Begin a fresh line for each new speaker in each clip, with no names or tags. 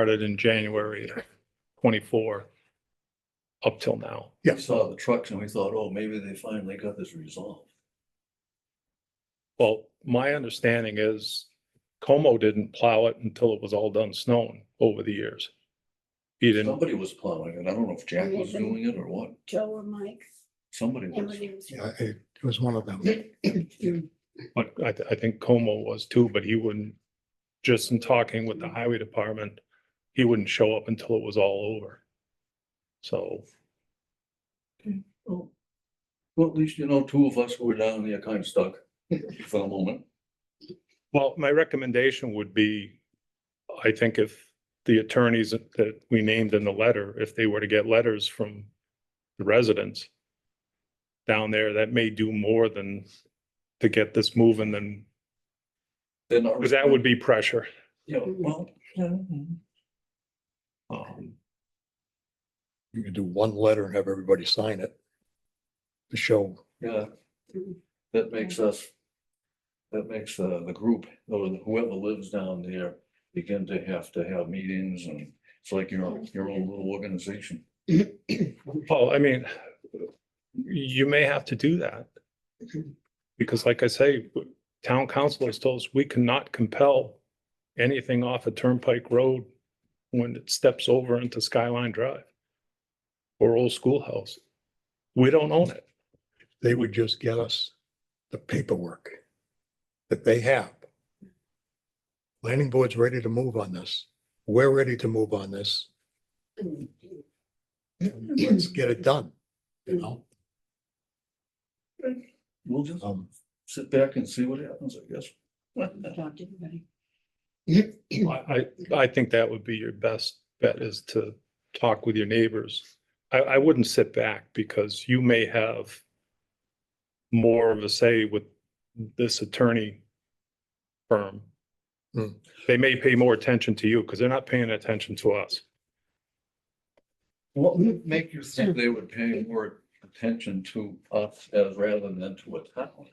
started in January twenty-four up till now.
We saw the trucks and we thought, oh, maybe they finally got this resolved.
Well, my understanding is Como didn't plow it until it was all done snowing over the years. He didn't,
Somebody was plowing it. I don't know if Jack was
Nathan.
doing it or what.
Joe or Mike.
Somebody was.
everybody was-
Yeah, it, it was one of them.
but I, th- I think Como was too, but he wouldn't, just in talking with the highway department, he wouldn't show up until it was all over. So,
Oh. Well, at least you know, two of us who were down there kind of stuck for the moment.
well, my recommendation would be, I think if the attorneys that that we named in the letter, if they were to get letters from the residents down there, that may do more than to get this moving than
They're not.
Because that would be pressure.
Yeah, well. yeah, mhm.
Um,
You can do one letter and have everybody sign it. To show,
Yeah, that makes us. That makes uh, the group, or whoever lives down there, begin to have to have meetings and it's like your, own- your own little organization.
Well, I mean, you may have to do that. Because like I say, town council has told us we cannot compel anything off a Turnpike Road when it steps over into Skyline Drive or Old Schoolhouse. We don't own it.
they would just get us the paperwork that they have. Planning board's ready to move on this. We're ready to move on this. Let's get it done, you know?
We'll just
Oh.
Um,
sit back and see what happens, I guess.
Talked to everybody.
I, I, I think that would be your best bet is to talk with your neighbors. I, I wouldn't sit back because you may have more of a say with this attorney firm.
Hmm.
They may pay more attention to you because they're not paying attention to us.
What would make you think they would pay more attention to us as rather than to a town?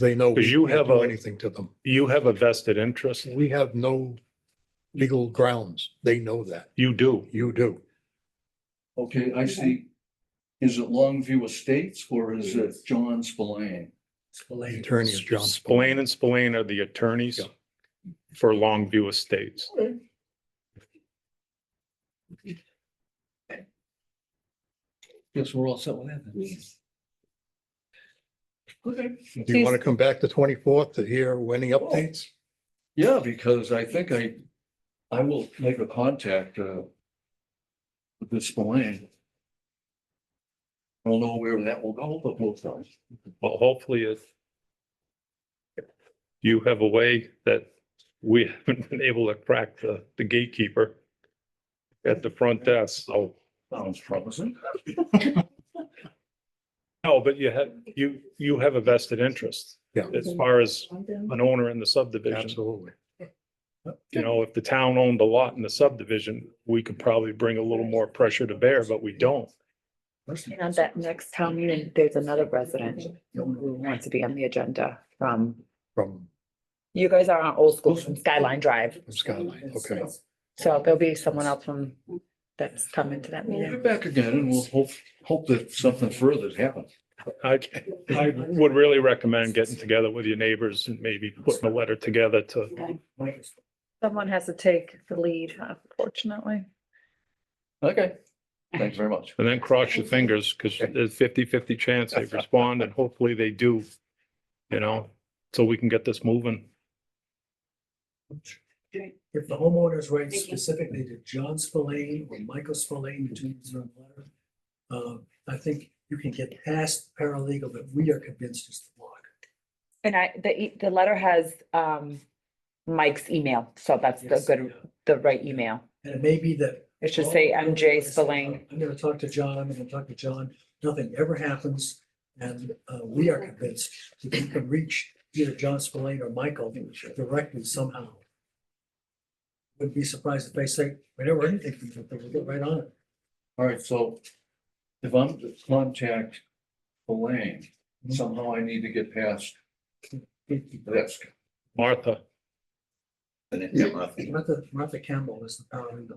They know. we
'Cause you
can't
have
do
a-
Anything to them.
You have a vested interest.
We have no legal grounds. They know that.
You do.
You do.
Okay, I see. Is it Longview Estates or is it John Spillane?
The attorney is John.
Spillane and Spillane are the attorneys
Yeah.
for Longview Estates.
Yes, we're all set with that. then.
Yes.
Okay.
Do you want to come back the twenty-fourth to hear any updates?
Yeah, because I think I, I will make a contact, uh, with this Spillane. I don't know where that will go, but we'll try.
Well, hopefully if you have a way that we haven't been able to crack the, the gatekeeper at the front desk, so.
Sounds promising.
No, but you have, you, you have a vested interest.
Yeah.
As far as
Well,
an owner in the subdivision,
Absolutely.
you know, if the town owned a lot in the subdivision, we could probably bring a little more pressure to bear, but we don't.
And at that next town meeting, there's another resident who wants to be on the agenda from,
From
you guys are on old school from Skyline Drive.
Skyline, okay.
So there'll be someone else from that's coming to that
We'll
meeting.
get back again and we'll hope, hope that something further happens.
I, I would really recommend getting together with your neighbors and maybe putting a letter together to
Someone has to take the lead, unfortunately.
Okay, thanks very much.
And then cross your fingers because there's 50-50 chance they respond and hopefully they do. You know, so we can get this moving.
If the homeowners write
Thank you.
specifically to John Spillane or Michael Spillane, the two names are on the letter, uh, I think you can get past paralegal that we are convinced is the block.
And I, the, e- the letter has um Mike's email, so that's the
Yes,
good,
yeah.
the right email.
And it may be that.
It should say
Oh,
MJ
yes,
Spillane.
I'm gonna talk to John, I'm gonna talk to John, nothing ever happens, and, uh, we are convinced that you can reach either John Spillane or Michael directly somehow. Wouldn't be surprised if they say, we never heard anything from them, but we'll get right on it.
All right, so if I'm to contact Elaine, somehow I need to get past. That's,
Martha,
They didn't get nothing.
Martha, Martha Campbell is the paralegal.